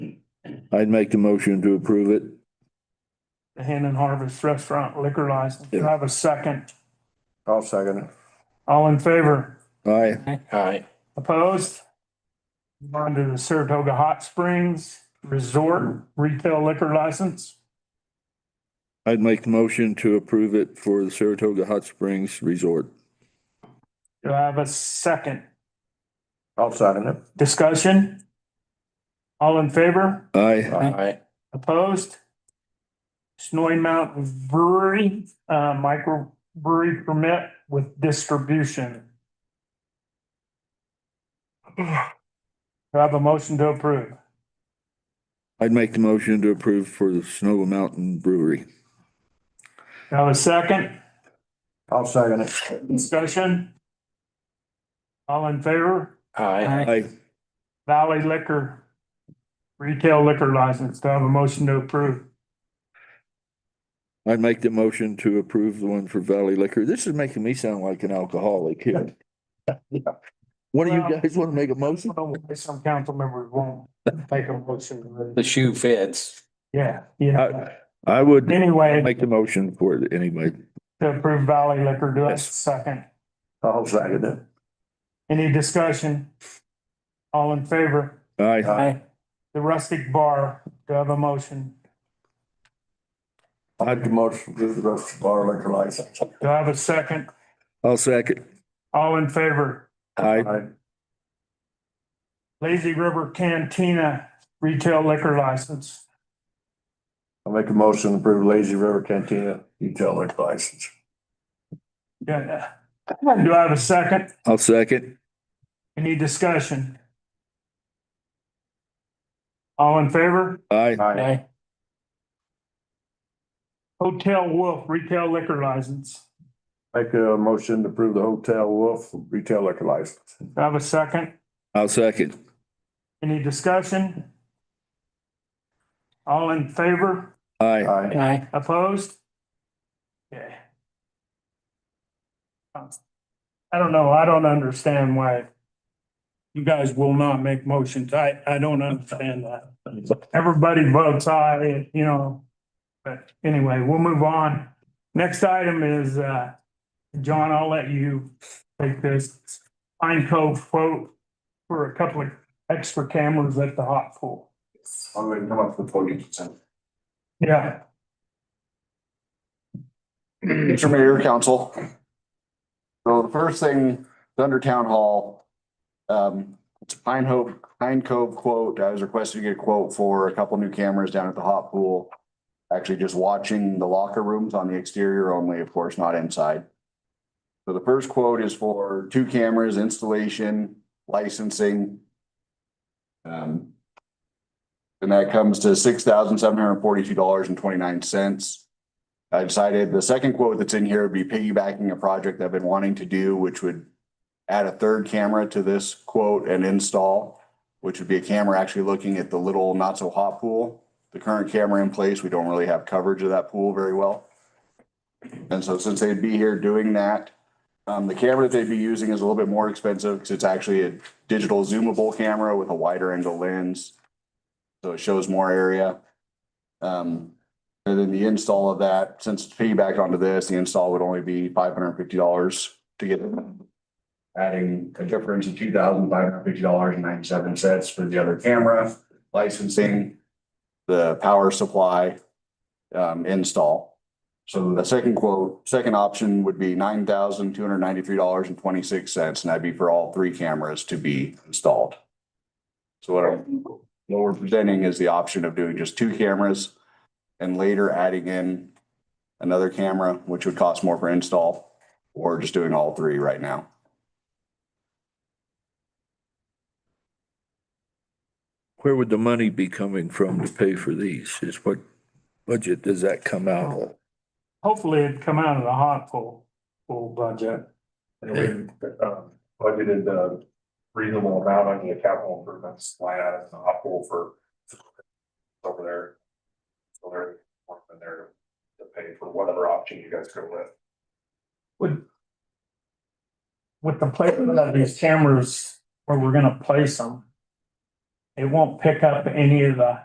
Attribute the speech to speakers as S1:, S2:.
S1: I'd make the motion to approve it.
S2: the Hen and Harvest Restaurant liquor license. Do I have a second?
S3: I'll second it.
S2: All in favor?
S1: Aye.
S3: Aye.
S2: Opposed? Move On to the Saratoga Hot Springs Resort Retail Liquor License.
S1: I'd make the motion to approve it for the Saratoga Hot Springs Resort.
S2: Do I have a second?
S3: I'll second it.
S2: Discussion? All in favor?
S1: Aye.
S3: Aye.
S2: Opposed? Snowy Mountain Brewery, uh, microbrewery permit with distribution. Do I have a motion to approve?
S1: I'd make the motion to approve for the Snow Mountain Brewery.
S2: Do I have a second?
S3: I'll second it.
S2: Discussion? All in favor?
S3: Aye.
S1: Aye.
S2: Valley Liquor Retail Liquor License. Do I have a motion to approve?
S1: I'd make the motion to approve the one for Valley Liquor. This is making me sound like an alcoholic here. One of you
S2: Well-
S1: guys want to make a motion?
S2: Some council members won't make a motion.
S4: The shoe fits.
S2: Yeah, yeah.
S1: I would
S2: Anyway,
S1: make the motion for it anyway.
S2: to approve Valley Liquor, do I have a
S1: Yes.
S2: second?
S3: I'll second it.
S2: Any discussion? All in favor?
S1: Aye.
S4: Aye.
S2: The rustic bar, do I have a motion?
S3: I'll make the motion to approve the rest of the bar liquor license.
S2: Do I have a second?
S1: I'll second.
S2: All in favor?
S1: Aye.
S3: Aye.
S2: Lazy River Cantina Retail Liquor License.
S3: I'll make a motion to approve Lazy River Cantina retail liquor license.
S2: Yeah. Do I have a second?
S1: I'll second.
S2: Any discussion? All in favor?
S1: Aye.
S3: Aye.
S4: Aye.
S2: Hotel Wolf Retail Liquor License.
S3: Make a motion to approve the Hotel Wolf retail liquor license.
S2: Do I have a second?
S1: I'll second.
S2: Any discussion? All in favor?
S1: Aye.
S3: Aye.
S4: Aye.
S2: Opposed? Okay. I don't know, I don't understand why you guys will not make motions. I, I don't understand that. Everybody votes aye, you know. But anyway, we'll move on. Next item is, uh, John, I'll let you take this. Pine Cove quote for a couple of extra cameras at the hot pool.
S3: I'm gonna come up with the podium.
S2: Yeah.
S5: Mr. Mayor, Council. So the first thing, Thunder Town Hall. Um, it's a Pine Hope, Pine Cove quote. I was requested to get a quote for a couple new cameras down at the hot pool. Actually just watching the locker rooms on the exterior only, of course, not inside. So the first quote is for two cameras, installation, licensing. Um. And that comes to six thousand seven hundred and forty-two dollars and twenty-nine cents. I decided the second quote that's in here would be piggybacking a project I've been wanting to do, which would add a third camera to this quote and install, which would be a camera actually looking at the little not so hot pool. The current camera in place, we don't really have coverage of that pool very well. And so since they'd be here doing that, um, the camera that they'd be using is a little bit more expensive because it's actually a digital zoomable camera with a wider angle lens. So it shows more area. Um, and then the install of that, since it's piggybacked onto this, the install would only be five hundred and fifty dollars to get it. Adding a difference of two thousand five hundred and fifty dollars and ninety-seven cents for the other camera, licensing, the power supply, um, install. So the second quote, second option would be nine thousand two hundred and ninety-three dollars and twenty-six cents, and that'd be for all three cameras to be installed. So what I'm, what we're presenting is the option of doing just two cameras and later adding in another camera, which would cost more for install, or just doing all three right now.
S1: Where would the money be coming from to pay for these? Is what budget does that come out of?
S2: Hopefully it'd come out of the hot pool, pool budget.
S6: And we um, budgeted the reasonable amount on the capital improvements line item, in the hot pool for over there. So they're working there to pay for whatever option you guys go with.
S2: Would. With the placement of these cameras where we're gonna place them. It won't pick up any of the